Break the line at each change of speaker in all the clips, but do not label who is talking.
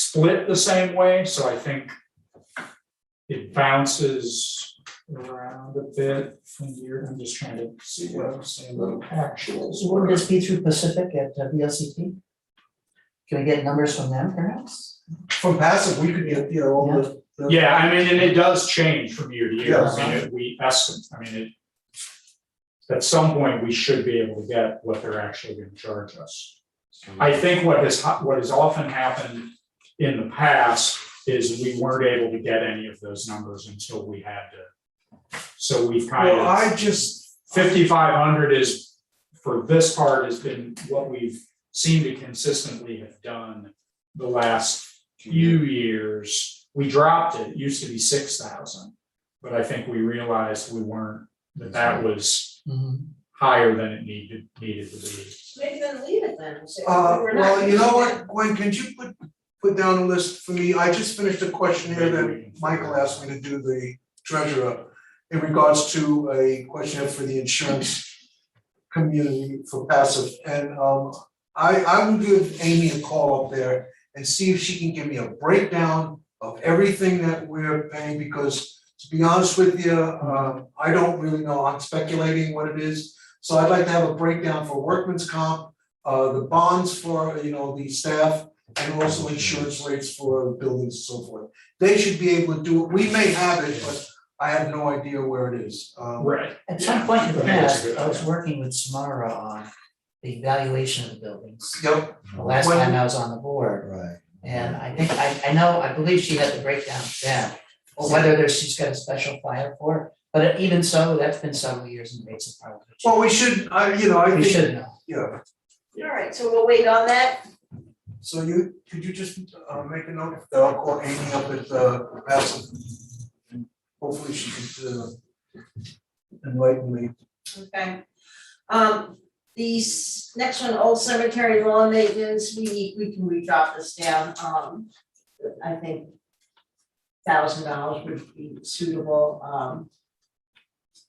split the same way, so I think it bounces around a bit from here. I'm just trying to see what I'm saying, little actuals.
So
were.
would this be through Pacific at uh, VLCT? Can we get numbers from them perhaps?
From passive, we could get, you know, all the. the-
Yeah, I mean, and it does change from year to year, I
Yeah.
mean, it- we estimate, I mean, it. At some point, we should be able to get what they're actually gonna charge us. I think what has, hap- what has often happened in the past is we weren't able to get any of those numbers until we had to. So we've kind
Well,
of,
I just,
fifty-five hundred is, for this part, has been what we've seemed to consistently have done the last few years, we dropped it, it used to be six thousand. But I think we realized we weren't, that that was higher than it needed, needed to be.
Maybe then leave it then, say,
uh,
we're not
well, you know
using
what, Gwen, could you put, put down a list for me? I just finished a questionnaire that
Maybe we can-
Michael asked me to do the treasurer in regards to a questionnaire for the insurance community for passive. And um, I, I will give Amy a call up there and see if she can give me a breakdown of everything that we're paying, because to be honest with you, um, I don't really know, I'm speculating what it is. So I'd like to have a breakdown for workman's comp, uh, the bonds for, you know, the staff, and also insurance rates for buildings and so forth. They should be able to do it, we may have it, but I have no idea where it is. Um,
Right,
At some point in the
I think that's a
past,
good
I was
idea.
working with Samara on the evaluation of the buildings,
Yep,
the last
When-
time I was on the board.
Right.
And I think, I, I know, I believe she had the breakdown then, or whether there's, she's got a special file for it. But even so, that's been several years and rates have probably
well,
changed.
we should, I, you know, I
We
think,
should know.
yeah,
it. All right, so we'll wait on that,
so you, could you just uh make a note, that I'll call Amy up at uh Bassett. Hopefully she could uh enlighten me.
okay? Um, these, next one, old cemetery lawn maintenance, we need, we can, we drop this down, um, I think thousand dollars would be suitable, um,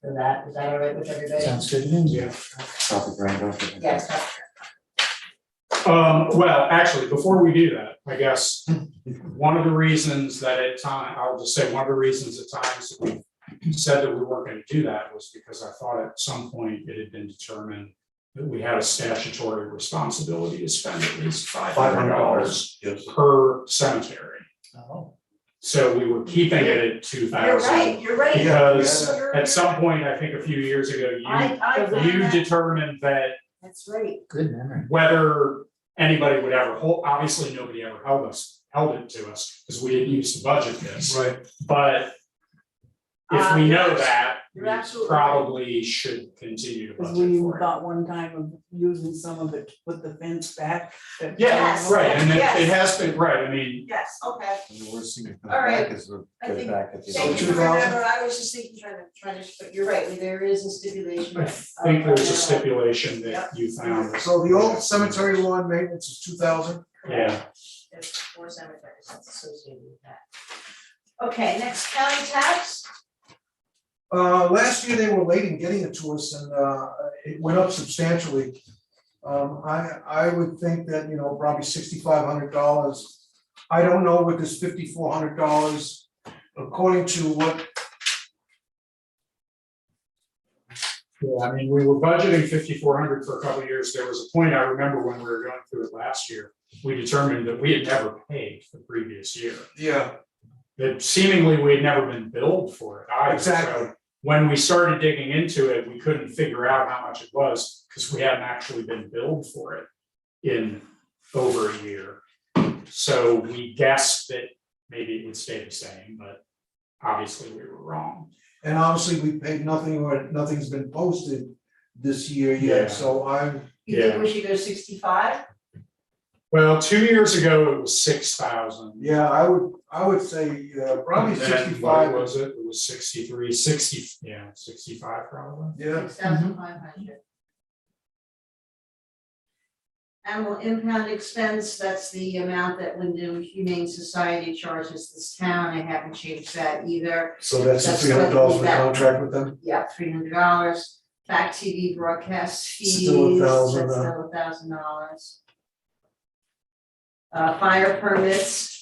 for that, is that all right with everybody?
Sounds good to me.
yeah.
Stop it right off. of it.
Yes, that's
Um, well, actually, before we do that, I guess, one of the reasons that at time, I'll just say, one of the reasons at times that we said that we weren't gonna do that was because I thought at some point it had been determined that we had a statutory responsibility to spend at least five hundred dollars
Yes.
per cemetery.
Oh,
So we were keeping it at two
You're
thousand.
right, you're right.
Because
Yeah.
at some point, I think a few years ago, you,
I, I found
you
that,
determined that
that's right,
good memory.
whether anybody would ever hold, obviously, nobody ever held us, held it to us, because we didn't use the budget this,
Right,
but if
Uh,
we
you're
know
abs-
that, we
you're absolutely right.
probably should continue to
Cause
budget
we
for it.
thought one time of using some of it to put the fence back. that-
Yeah,
Yes,
right, and it, it
yes.
has been, right, I mean,
yes, okay.
And The worst thing that comes
All right.
back is we'll
I
get
think-
it back at the.
Thank you for
2000?
remember, I was just thinking, trying to, trying to, but you're right, there is a stipulation. uh,
I think there's a stipulation that you found.
so the old cemetery lawn maintenance is two thousand,
Yeah,
There's four cemeteries that's associated with that. Okay, next county tax,
uh last year they were late in getting it to us and uh it went up substantially. Um I I would think that, you know, probably sixty five hundred dollars. I don't know what this fifty four hundred dollars, according to what,
yeah, I mean, we were budgeting fifty-four hundred for a couple of years, there was a point, I remember when we were going through it last year, we determined that we had never paid the previous year.
yeah,
that seemingly we had never been billed for it either. So
Exactly.
When we started digging into it, we couldn't figure out how much it was because we hadn't actually been billed for it in over a year. So we guessed that maybe it would stay the same, but obviously we were wrong.
and obviously we paid nothing or nothing's been posted this year
Yeah.
yet, so I'm
you think we should go sixty-five?
Well, two years ago, it was six thousand.
Yeah, I would, I would say, uh, probably
What
sixty-five,
was it? It was 63, 60. yeah, sixty-five probably.
yeah,
Six thousand five hundred. Animal impound expense, that's the amount that Wyndham Humane Society charges this town, I haven't changed that either.
so that's the
That's
three hundred dollars for the
what we got.
contract with them,
Yeah, three hundred dollars, fact TV broadcast fees,
Still a
that's
thousand, uh,
still a thousand dollars. Uh, fire permits,